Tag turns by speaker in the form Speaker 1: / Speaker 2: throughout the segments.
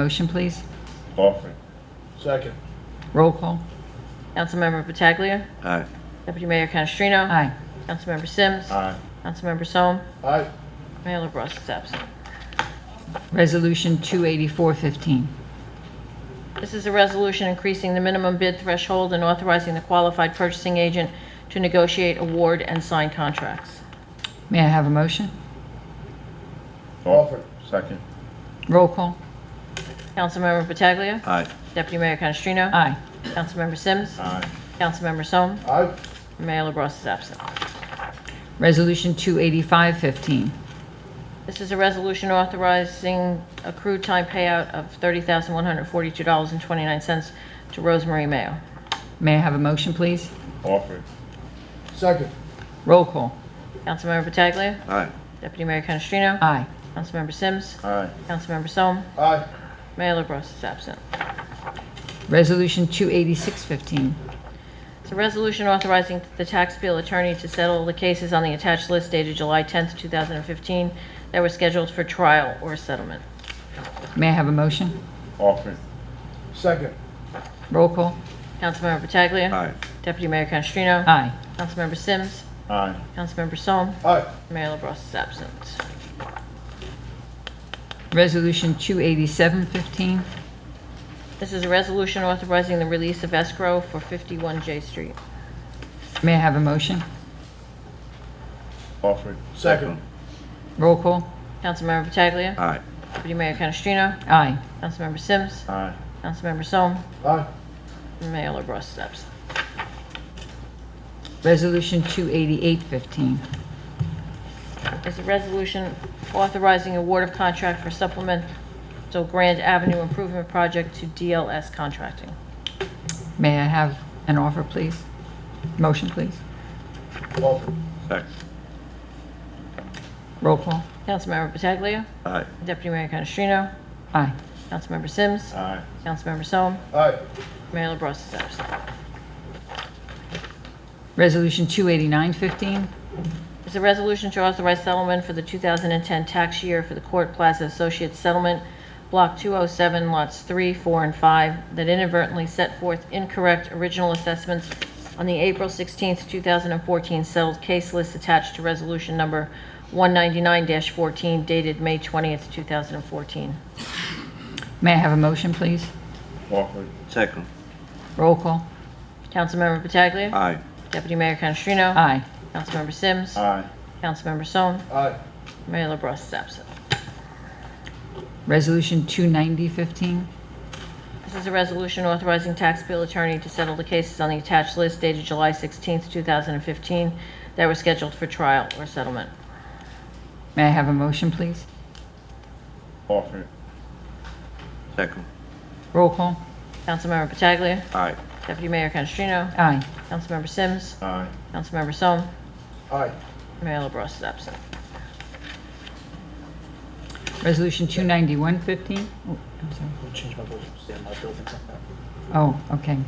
Speaker 1: Motion, please.
Speaker 2: Offer.
Speaker 3: Second.
Speaker 1: Roll call.
Speaker 4: Councilmember Pataglia.
Speaker 2: Aye.
Speaker 4: Deputy Mayor Canestrino.
Speaker 1: Aye.
Speaker 4: Councilmember Sims.
Speaker 2: Aye.
Speaker 4: Councilmember Sol.
Speaker 3: Aye.
Speaker 4: Mayor LaBrus is absent.
Speaker 1: Resolution 284-15.
Speaker 4: This is a resolution increasing the minimum bid threshold and authorizing the qualified purchasing agent to negotiate award and sign contracts.
Speaker 1: May I have a motion?
Speaker 3: Offer.
Speaker 2: Second.
Speaker 1: Roll call.
Speaker 4: Councilmember Pataglia.
Speaker 2: Aye.
Speaker 4: Deputy Mayor Canestrino.
Speaker 1: Aye.
Speaker 4: Councilmember Sims.
Speaker 2: Aye.
Speaker 4: Councilmember Sol.
Speaker 3: Aye.
Speaker 4: Mayor LaBrus is absent.
Speaker 1: Resolution 285-15.
Speaker 4: This is a resolution authorizing accrued time payout of $30,142.29 to Rosemary Mayo.
Speaker 1: May I have a motion, please?
Speaker 2: Offer.
Speaker 3: Second.
Speaker 1: Roll call.
Speaker 4: Councilmember Pataglia.
Speaker 2: Aye.
Speaker 4: Deputy Mayor Canestrino.
Speaker 1: Aye.
Speaker 4: Councilmember Sims.
Speaker 2: Aye.
Speaker 4: Councilmember Sol.
Speaker 3: Aye.
Speaker 4: Mayor LaBrus is absent.
Speaker 1: Resolution 286-15.
Speaker 4: It's a resolution authorizing the tax bill attorney to settle the cases on the attached list dated July 10th, 2015, that were scheduled for trial or settlement.
Speaker 1: May I have a motion?
Speaker 2: Offer.
Speaker 3: Second.
Speaker 1: Roll call.
Speaker 4: Councilmember Pataglia.
Speaker 2: Aye.
Speaker 4: Deputy Mayor Canestrino.
Speaker 1: Aye.
Speaker 4: Councilmember Sims.
Speaker 2: Aye.
Speaker 4: Councilmember Sol.
Speaker 3: Aye.
Speaker 4: Mayor LaBrus is absent.
Speaker 1: Resolution 287-15.
Speaker 4: This is a resolution authorizing the release of escrow for 51 J Street.
Speaker 1: May I have a motion?
Speaker 2: Offer.
Speaker 3: Second.
Speaker 1: Roll call.
Speaker 4: Councilmember Pataglia.
Speaker 2: Aye.
Speaker 4: Deputy Mayor Canestrino.
Speaker 1: Aye.
Speaker 4: Councilmember Sims.
Speaker 2: Aye.
Speaker 4: Councilmember Sol.
Speaker 3: Aye.
Speaker 4: Mayor LaBrus is absent.
Speaker 1: Resolution 288-15.
Speaker 4: is a resolution authorizing award of contract for supplemental Grand Avenue Improvement Project to DLS Contracting.
Speaker 1: May I have an offer, please? Motion, please.
Speaker 3: Offer.
Speaker 2: Second.
Speaker 1: Roll call.
Speaker 4: Councilmember Pataglia.
Speaker 2: Aye.
Speaker 4: Deputy Mayor Canestrino.
Speaker 1: Aye.
Speaker 4: Councilmember Sims.
Speaker 2: Aye.
Speaker 4: Councilmember Sol.
Speaker 3: Aye.
Speaker 4: Mayor LaBrus is absent.
Speaker 1: Resolution 289-15.
Speaker 4: It's a resolution to authorize settlement for the 2010 tax year for the Court Plaza Associates Settlement, Block 207, Lots 3, 4, and 5, that inadvertently set forth incorrect original assessments on the April 16, 2014 settled case list attached to Resolution Number 199-14 dated May 20, 2014.
Speaker 1: May I have a motion, please?
Speaker 2: Offer. Second.
Speaker 1: Roll call.
Speaker 4: Councilmember Pataglia.
Speaker 2: Aye.
Speaker 4: Deputy Mayor Canestrino.
Speaker 1: Aye.
Speaker 4: Councilmember Sims.
Speaker 2: Aye.
Speaker 4: Councilmember Sol.
Speaker 3: Aye.
Speaker 4: Mayor LaBrus is absent.
Speaker 1: Resolution 290-15.
Speaker 4: This is a resolution authorizing tax bill attorney to settle the cases on the attached list dated July 16th, 2015, that were scheduled for trial or settlement.
Speaker 1: May I have a motion, please?
Speaker 2: Offer. Second.
Speaker 1: Roll call.
Speaker 4: Councilmember Pataglia.
Speaker 2: Aye.
Speaker 4: Deputy Mayor Canestrino.
Speaker 1: Aye.
Speaker 4: Councilmember Sims.
Speaker 2: Aye.
Speaker 4: Councilmember Sol.
Speaker 3: Aye.
Speaker 4: Mayor LaBrus is absent.
Speaker 1: Resolution 291-15. Oh, I'm sorry.
Speaker 5: I'm gonna change my vote to abstain. My bill thinks I'm back.
Speaker 1: Oh, okay.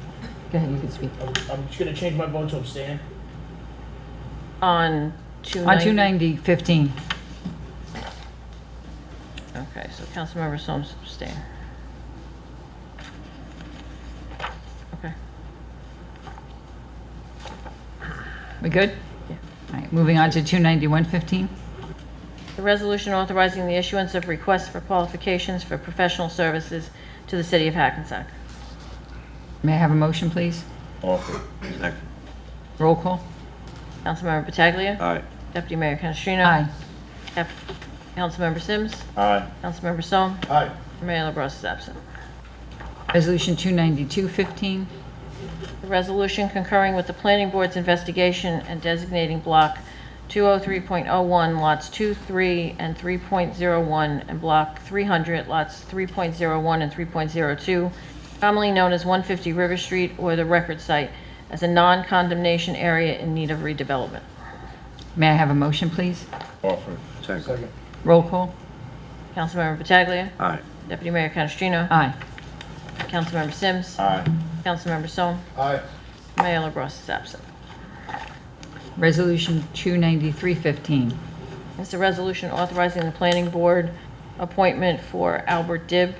Speaker 1: Go ahead, you can speak.
Speaker 5: I'm- I'm just gonna change my vote to abstain.
Speaker 4: On
Speaker 1: On
Speaker 4: 290.
Speaker 1: 290-15.
Speaker 4: Okay, so Councilmember Sol abstained. Okay.
Speaker 1: We good?
Speaker 4: Yeah.
Speaker 1: All right, moving on to 291-15.
Speaker 4: The resolution authorizing the issuance of requests for qualifications for professional services to the city of Hackensack.
Speaker 1: May I have a motion, please?
Speaker 2: Offer. Second.
Speaker 1: Roll call.
Speaker 4: Councilmember Pataglia.
Speaker 2: Aye.
Speaker 4: Deputy Mayor Canestrino.
Speaker 1: Aye.
Speaker 4: Cap- Councilmember Sims.
Speaker 2: Aye.
Speaker 4: Councilmember Sol.
Speaker 3: Aye.
Speaker 4: Mayor LaBrus is absent.
Speaker 1: Resolution 292-15.
Speaker 4: The resolution concurring with the Planning Board's investigation and designating Block 203.01, Lots 2, 3, and 3.01, and Block 300, Lots 3.01 and 3.02, commonly known as 150 River Street or the Record Site, as a non-condemnation area in need of redevelopment.
Speaker 1: May I have a motion, please?
Speaker 2: Offer. Second.
Speaker 3: Second.
Speaker 1: Roll call.
Speaker 4: Councilmember Pataglia.
Speaker 2: Aye.
Speaker 4: Deputy Mayor Canestrino.
Speaker 1: Aye.
Speaker 4: Councilmember Sims.
Speaker 2: Aye.
Speaker 4: Councilmember Sol.
Speaker 3: Aye.
Speaker 4: Mayor LaBrus is absent.
Speaker 1: Resolution 293-15.
Speaker 4: It's a resolution authorizing the planning board appointment for Albert Dibb